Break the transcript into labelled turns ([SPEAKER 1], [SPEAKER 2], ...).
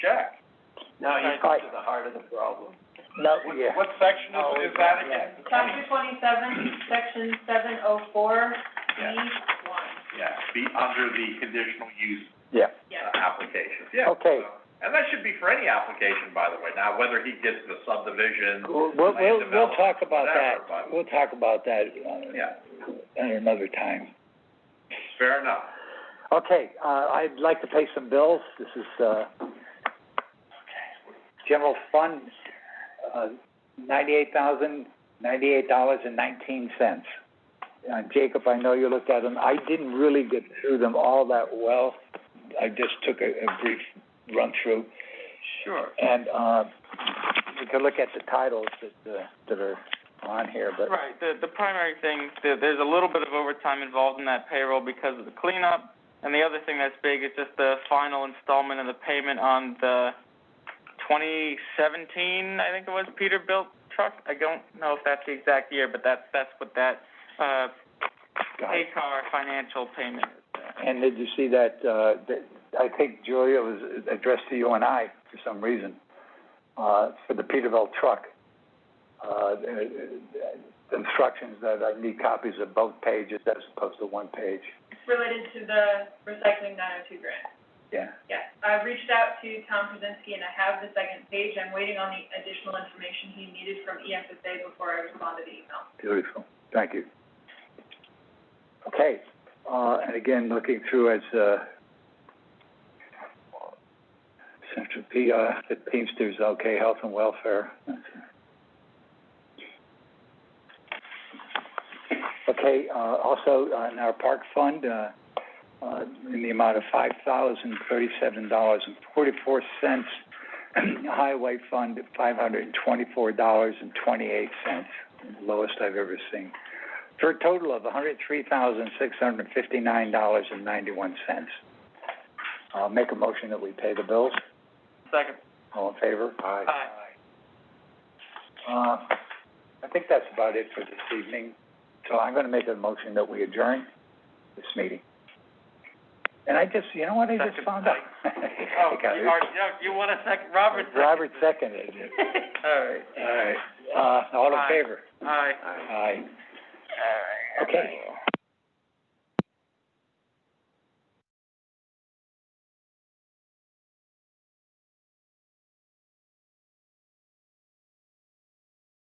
[SPEAKER 1] check.
[SPEAKER 2] Now
[SPEAKER 1] you're
[SPEAKER 2] to the heart of the problem.
[SPEAKER 3] No,
[SPEAKER 1] What,
[SPEAKER 3] yeah.
[SPEAKER 1] what section is, is that again?
[SPEAKER 4] Chapter twenty-seven, section seven oh four, B
[SPEAKER 1] Yeah.
[SPEAKER 4] one,
[SPEAKER 1] Yeah, be under the conditional use
[SPEAKER 3] Yeah.
[SPEAKER 4] yes.
[SPEAKER 1] uh, application, yeah.
[SPEAKER 3] Okay.
[SPEAKER 1] so- And that should be for any application, by the way, now whether he gets the subdivision,
[SPEAKER 3] We'll, we'll,
[SPEAKER 1] land
[SPEAKER 3] we'll talk
[SPEAKER 1] development,
[SPEAKER 3] about
[SPEAKER 1] whatever,
[SPEAKER 3] that,
[SPEAKER 1] but,
[SPEAKER 3] we'll talk about that, uh,
[SPEAKER 1] yeah,
[SPEAKER 3] at another time.
[SPEAKER 1] fair enough.
[SPEAKER 3] Okay, uh, I'd like to pay some bills, this is, uh, general fund, uh, ninety-eight thousand, ninety-eight dollars and nineteen cents. Uh, Jacob, I know you looked at them, I didn't really get through them all that well, I just took a, a brief run-through.
[SPEAKER 2] Sure.
[SPEAKER 3] And, uh, we could look at the titles that, uh, that are on here, but,
[SPEAKER 2] Right, the, the primary thing, there, there's a little bit of overtime involved in that payroll because of the cleanup. And the other thing that's big is just the final installment of the payment on the twenty seventeen, I think it was, Peterbilt truck. I don't know if that's the exact year, but that's, that's what that, uh, Paycar financial payment is.
[SPEAKER 3] uh, And did you see that, uh, that, I think Julia was addressed to you and I for some reason, uh, for the Peterbilt truck. Uh, the- the instructions that I need copies of both pages as opposed to one page,
[SPEAKER 4] It's related to the recycling nine oh two grant.
[SPEAKER 3] yeah.
[SPEAKER 4] Yes, I reached out to Tom Krasinski and I have the second page. I'm waiting on the additional information he needed from E EFSA before I respond to the email.
[SPEAKER 3] Beautiful, thank you. Okay, uh, and again, looking through as, uh, Central P, uh, the Teamsters, okay, health and welfare. Okay, uh, also, uh, in our park fund, uh, uh, in the amount of five thousand thirty-seven dollars and forty-four cents. Highway fund, five hundred and twenty-four dollars and twenty-eight cents lowest I've ever seen, for a total of hundred three thousand six hundred fifty-nine dollars and ninety-one cents. I'll make a motion that we pay the bills.
[SPEAKER 2] Second.
[SPEAKER 3] All in favor?
[SPEAKER 2] Aye.
[SPEAKER 3] Uh, I think that's about it for this evening, so I'm gonna make a motion that we adjourn this meeting. And I just, you know what I just
[SPEAKER 2] Second.
[SPEAKER 3] found out?
[SPEAKER 2] Oh, you, are, you- you want a second, Robert second?
[SPEAKER 3] Robert seconded it.
[SPEAKER 2] All right.
[SPEAKER 3] All right. Uh, all in
[SPEAKER 2] Aye.
[SPEAKER 3] favor?
[SPEAKER 2] Aye.
[SPEAKER 3] Aye.
[SPEAKER 2] All right.
[SPEAKER 3] Okay.